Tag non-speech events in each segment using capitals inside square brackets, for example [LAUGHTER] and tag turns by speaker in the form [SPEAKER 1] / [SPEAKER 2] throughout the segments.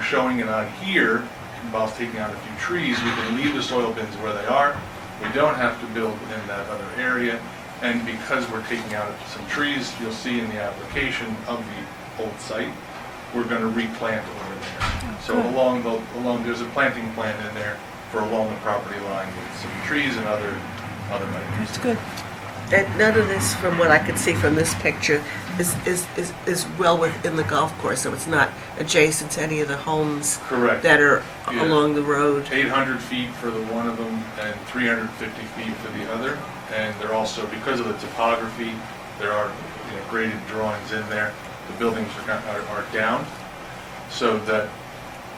[SPEAKER 1] showing it on here involves taking out a few trees, we can leave the soil bins where they are. We don't have to build within that other area. And because we're taking out some trees, you'll see in the application of the old site, we're going to replant over there. So along the, along, there's a planting plan in there for along the property line with some trees and other, other measures.
[SPEAKER 2] That's good.
[SPEAKER 3] And none of this, from what I could see from this picture, is, is, is, is well within the golf course, so it's not adjacent to any of the homes
[SPEAKER 1] Correct.
[SPEAKER 3] that are
[SPEAKER 1] Yeah.
[SPEAKER 3] along the road.
[SPEAKER 1] 800 feet for the one of them and 350 feet for the other. And they're also, because of the topography, there are you know, graded drawings in there. The buildings are kind- are are down, so that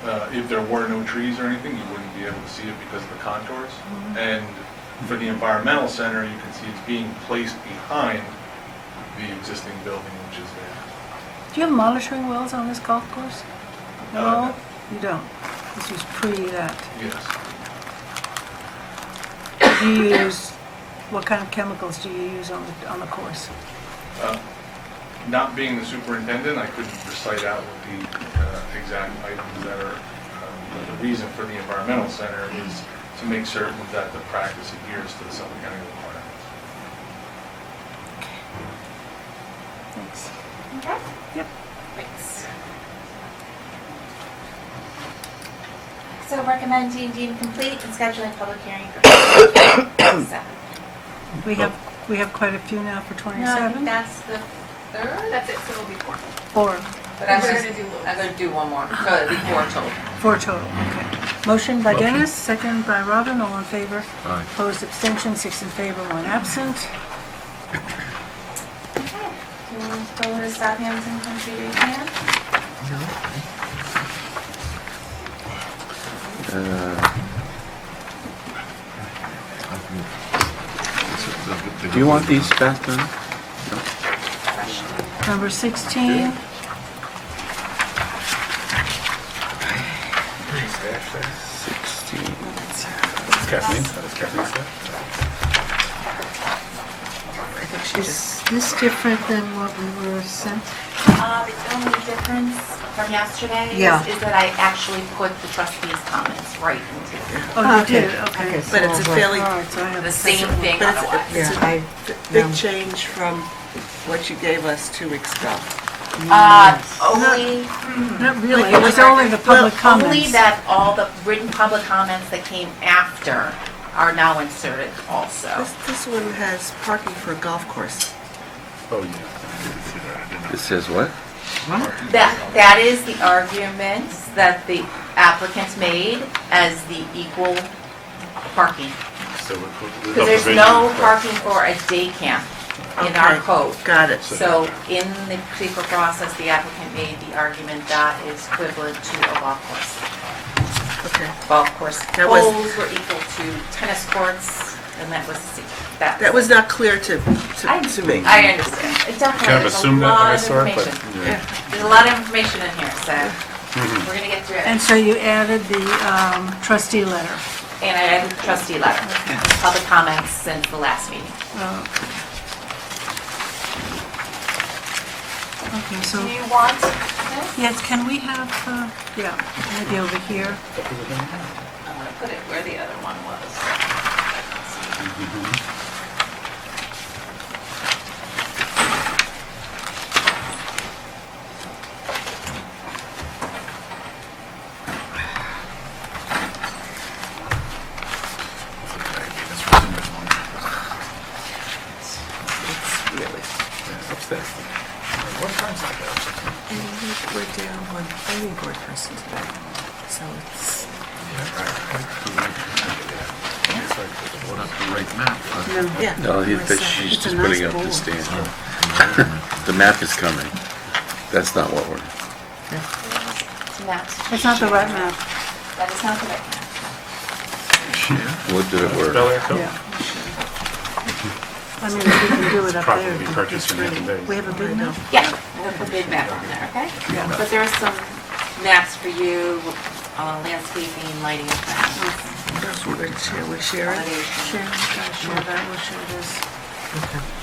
[SPEAKER 1] uh, if there were no trees or anything, you wouldn't be able to see it because of the contours. And for the environmental center, you can see it's being placed behind the existing building, which is there.
[SPEAKER 2] Do you have monitoring wells on this golf course?
[SPEAKER 1] Uh,
[SPEAKER 2] At all? You don't? This was pre that.
[SPEAKER 1] Yes.
[SPEAKER 2] Do you use, what kind of chemicals do you use on the, on the course?
[SPEAKER 1] Uh, Not being the superintendent, I couldn't recite out what the uh, exact items that are, um, but the reason for the environmental center is to make certain that the practice adheres to the Suffolk County requirements.
[SPEAKER 2] Thanks.
[SPEAKER 4] Okay.
[SPEAKER 2] Yep.
[SPEAKER 4] Thanks. So recommend D and D complete and scheduling public hearing for [COUGHS] 27.
[SPEAKER 2] We have, we have quite a few now for
[SPEAKER 4] No, I
[SPEAKER 2] 27.
[SPEAKER 4] think that's the third.
[SPEAKER 5] That's it, so it'll be four.
[SPEAKER 2] Four,
[SPEAKER 5] But
[SPEAKER 4] I'm
[SPEAKER 5] I'm
[SPEAKER 4] just-
[SPEAKER 5] gonna do Louis.
[SPEAKER 4] I'm gonna do one more, so it'll be four total.
[SPEAKER 2] four total, okay. Motion by Dennis, second by Robin, all in favor.
[SPEAKER 6] Aye.
[SPEAKER 2] Opposed, abstention, six in favor, one absent.
[SPEAKER 4] Okay. Do you want to go to Southampton and come see your hand?
[SPEAKER 6] Do you want these back then?
[SPEAKER 2] Number 16,
[SPEAKER 6] Sixteen.
[SPEAKER 7] Is this different than what we were sent?
[SPEAKER 4] Uh, the only difference from yesterday
[SPEAKER 7] Yeah.
[SPEAKER 4] is is that I actually put the trustees' comments right into it.
[SPEAKER 2] oh, you did, okay.
[SPEAKER 7] so
[SPEAKER 3] But it's a
[SPEAKER 7] I'll-
[SPEAKER 3] fairly,
[SPEAKER 2] All right, so I have
[SPEAKER 4] The
[SPEAKER 2] a
[SPEAKER 4] same thing
[SPEAKER 3] But it's-
[SPEAKER 4] otherwise.
[SPEAKER 7] Yeah, I,
[SPEAKER 3] big
[SPEAKER 7] no.
[SPEAKER 3] change from what you gave us two weeks ago.
[SPEAKER 4] Uh, only,
[SPEAKER 2] Not really, it was only the public
[SPEAKER 4] well, only
[SPEAKER 2] comments.
[SPEAKER 4] that all the written public comments that came after are now inserted also.
[SPEAKER 3] This, this one has parking for a golf course.
[SPEAKER 6] It says what?
[SPEAKER 4] That, that is the argument that the applicants made as the equal parking. Because there's no parking for a day camp in our
[SPEAKER 3] Okay,
[SPEAKER 4] code.
[SPEAKER 3] Got it.
[SPEAKER 4] So in the particular process, the applicant made the argument that is equivalent to a golf course.
[SPEAKER 3] Okay.
[SPEAKER 4] Golf course
[SPEAKER 3] That was-
[SPEAKER 4] holes were equal to tennis courts, and that was, that.
[SPEAKER 3] That was not clear to,
[SPEAKER 4] I-
[SPEAKER 3] to, to me.
[SPEAKER 4] I understand. It definitely,
[SPEAKER 8] Kind of
[SPEAKER 4] there's a
[SPEAKER 8] assumed that when
[SPEAKER 4] lot
[SPEAKER 8] I
[SPEAKER 4] of
[SPEAKER 8] saw it, but,
[SPEAKER 4] information. There's a lot of information in here, so
[SPEAKER 8] Mm-hmm.
[SPEAKER 4] we're gonna get through it.
[SPEAKER 2] And so you added the um, trustee letter.
[SPEAKER 4] And I have a trustee letter, public comments since the last meeting.
[SPEAKER 2] Uh, Okay, so,
[SPEAKER 5] Do you want
[SPEAKER 2] yes, can we have, uh, yeah, maybe over here.
[SPEAKER 4] I'm gonna put it where the other one was.
[SPEAKER 3] It's really- And we- we're down one planning board person today, so it's. Yeah.
[SPEAKER 6] No, he-
[SPEAKER 3] we're
[SPEAKER 6] that
[SPEAKER 3] set.
[SPEAKER 6] she's
[SPEAKER 2] It's a
[SPEAKER 6] just
[SPEAKER 2] nice
[SPEAKER 6] putting up the
[SPEAKER 2] bowl.
[SPEAKER 6] stand. [LAUGHS] The map is coming. That's not what we're,
[SPEAKER 4] So that's-
[SPEAKER 2] It's not the right map,
[SPEAKER 4] That is not the right one.
[SPEAKER 6] what did it
[SPEAKER 8] Bel
[SPEAKER 6] work?
[SPEAKER 8] Air Film.
[SPEAKER 2] yeah. I mean, if we can do it up
[SPEAKER 8] Probably
[SPEAKER 2] there. it'd be
[SPEAKER 8] purchased in
[SPEAKER 2] great.
[SPEAKER 8] the days.
[SPEAKER 2] We have a big map.
[SPEAKER 4] Yeah, we'll put big map on there, okay? But there are some maps for you, uh, landscaping, lighting, and plants,
[SPEAKER 3] We're gonna share, we're sharing.
[SPEAKER 2] Share,
[SPEAKER 4] elevation.
[SPEAKER 2] uh, share that, we'll share this.